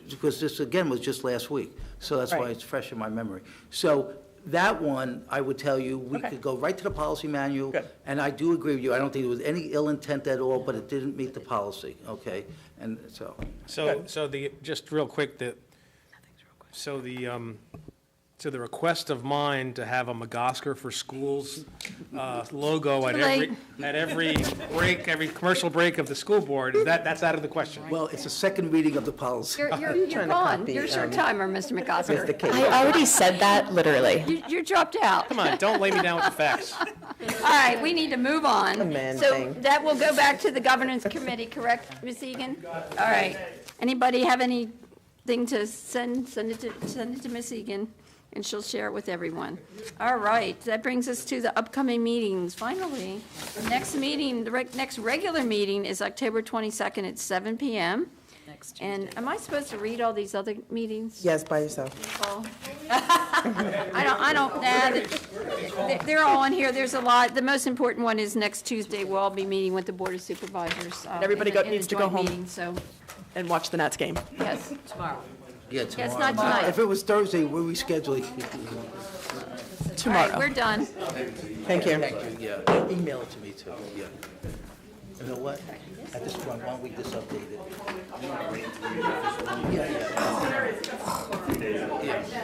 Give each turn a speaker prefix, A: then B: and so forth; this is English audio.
A: because this, again, was just last week. So that's why
B: Right.
A: it's fresh in my memory. So that one, I would tell you, we
B: Okay.
A: could go right to the policy manual.
B: Good.
A: And I do agree with you. I don't think there was any ill intent at all, but it didn't meet the policy, okay? And so,
C: So, so the, just real quick, the, so the, um, so the request of mine to have a McGosker for Schools uh, logo at
D: Too
C: every,
D: late.
C: at every break, every commercial break of the school board, that, that's out of the question.
A: well, it's a second reading of the policy.
D: You're, you're, you're
B: trying to
D: gone.
B: copy,
D: Here's your
B: um,
D: timer, Mr.
A: The
D: McCosker.
A: case.
E: I already said that, literally.
D: You, you dropped out.
C: Come on, don't lay me down with the facts.
D: All right, we need to move on.
B: man
D: So
B: thing.
D: that will go back to the governance committee, correct, Ms. Egan? All right. Anybody have anything to send, send it to, send it to Ms. Egan, and she'll share it with everyone. All right, that brings us to the upcoming meetings, finally. The next meeting, the reg- next regular meeting is October 22nd at seven PM. And am I supposed to read all these other meetings?
B: Yes, by yourself.
D: Oh. I don't, I don't, nah, th- they're all on here, there's a lot, the most important one is next Tuesday, we'll all be meeting with the Board of Supervisors. uh,
B: everybody
D: in the-
B: go- needs to go
D: In
B: home.
D: the joint meeting, so,
B: And watch the Nats game.
D: yes.
A: Yeah,
D: it's
A: tomorrow.
D: not tonight.
A: If it was Thursday, we're rescheduling.
D: All right,
B: Tomorrow.
D: we're done.
B: Thank you.
A: Thank you, yeah. Email it to me too, yeah. You know what? At this point, why don't we just update it? Yeah, yeah.